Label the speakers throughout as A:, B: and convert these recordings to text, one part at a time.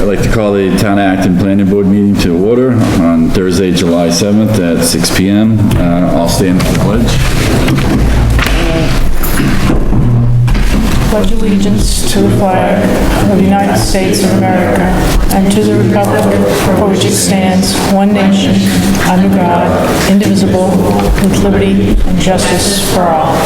A: like to call the Town of Acton Planning Board meeting to order on Thursday, July 7th at 6 PM. Uh, I'll stand for the pledge.
B: pledge allegiance to the flag of the United States of America and to the republic for which it stands, one nation, under God, indivisible, with liberty and justice for all.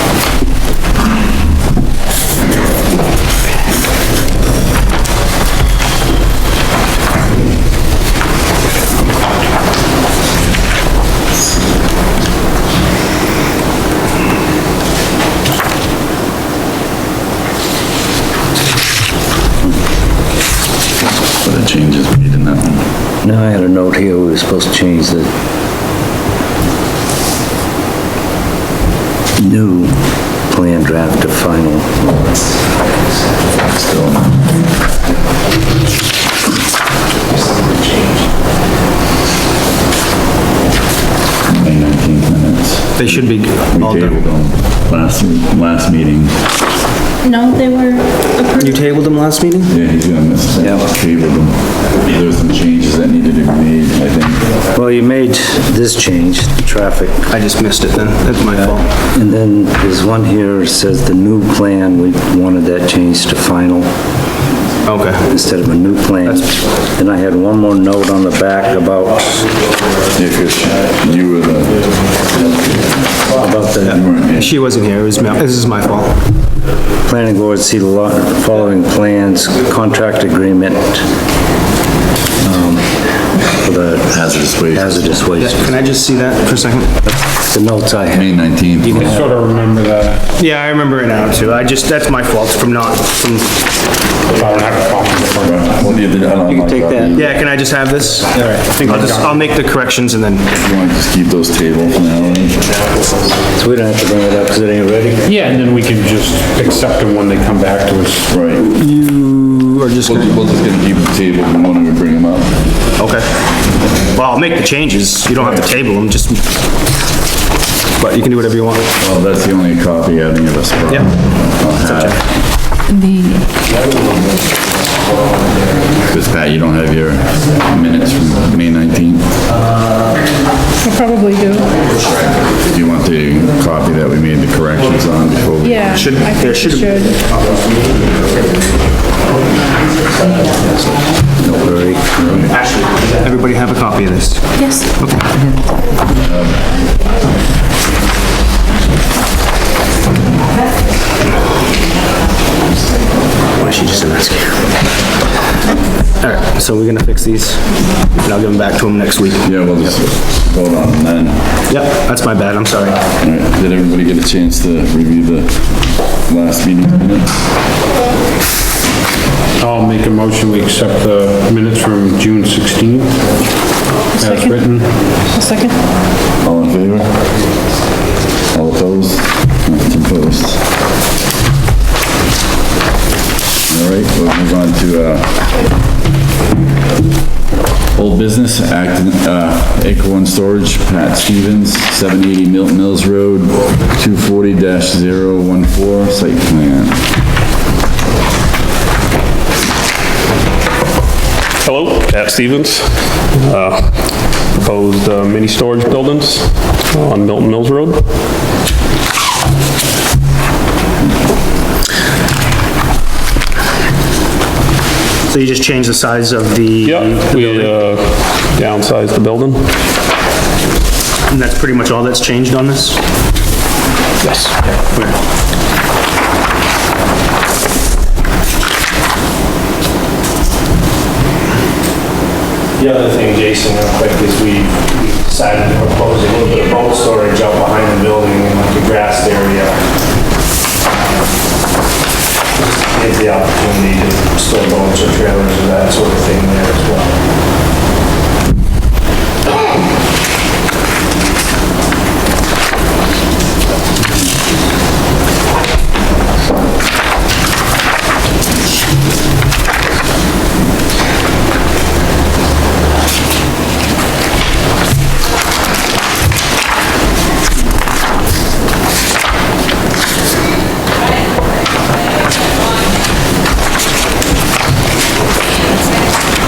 A: What a change is made in that one.
C: Now, I had a note here, we were supposed to change the new plan draft to final.
A: Still. May 19th minutes.
D: They should be
A: We
D: all
A: tabled
D: done.
A: them last, last meeting.
E: No, they were approved.
D: You tabled them last meeting?
A: Yeah, he's gonna miss that.
C: Yeah.
A: Tabled them. There were some changes that needed to be made, I think.
C: Well, you made this change, traffic,
D: I just missed it then. That's my fault.
C: and then there's one here that says the new plan, we wanted that changed to final
D: Okay.
C: instead of a new plan. And I had one more note on the back about,
A: Yeah, 'cause you were the,
C: about the
A: you weren't here.
D: She wasn't here. It was, Mel- this is my fault.
C: Planning board see the lo- following plans, contract agreement, um, for the
A: Hazardous waste.
C: hazardous waste.
D: Can I just see that for a second?
C: The notes I had,
A: May 19th.
F: Sort of remember that,
D: Yeah, I remember it now too. I just, that's my fault from not, from,
F: if I don't have a copy in front of me.
A: You
C: can take that.
D: yeah, can I just have this? All right. I think I'll just, I'll make the corrections and then,
A: You wanna just keep those tabled for now?
C: so we don't have to bring it up because it ain't ready.
F: Yeah, and then we can just accept them when they come back to us.
A: Right.
D: you are just gonna,
A: We'll we'll just gonna keep the table and when we bring them up.
D: okay. Well, I'll make the changes. You don't have to table them, just, but you can do whatever you want.
A: Well, that's the only copy any of us brought.
D: Yeah.
A: Yeah.
B: The,
A: Because Pat, you don't have your minutes from May 19th.
B: I probably do,
A: Do you want the copy that we made the corrections on before we?
B: yeah.
D: Should-
B: I think
D: there
B: it
D: should-
B: should.
A: Very early.
D: Everybody have a copy of this.
E: Yes.
D: Why she just didn't ask you? All right, so we're gonna fix these, and I'll give them back to him next week.
A: Yeah, we'll just vote on them then.
D: Yep, that's my bad, I'm sorry.
A: All right, Did everybody get a chance to review the last meeting minutes?
F: I'll make a motion, we accept the minutes from June 16th as
B: Second.
F: written.
B: A second?
A: All in favor? All opposed? Nothing opposed. All right, we'll move on to, uh, old business, act, uh, Acre One Storage, Pat Stevens, 780 Milton Mills Road, 240-014, site plan.
G: Hello, Pat Stevens. Uh, Proposed uh, mini storage buildings on Milton Mills Road.
D: So you just changed the size of the...
G: Yep, we uh, downsized the building.
D: And that's pretty much all that's changed on this?
G: Yes.
H: The other thing, Jason, real quick, is we we decided to propose a little bit of boat storage out behind the building in like a grassed area. Gives the opportunity to store boats or trailers or that sort of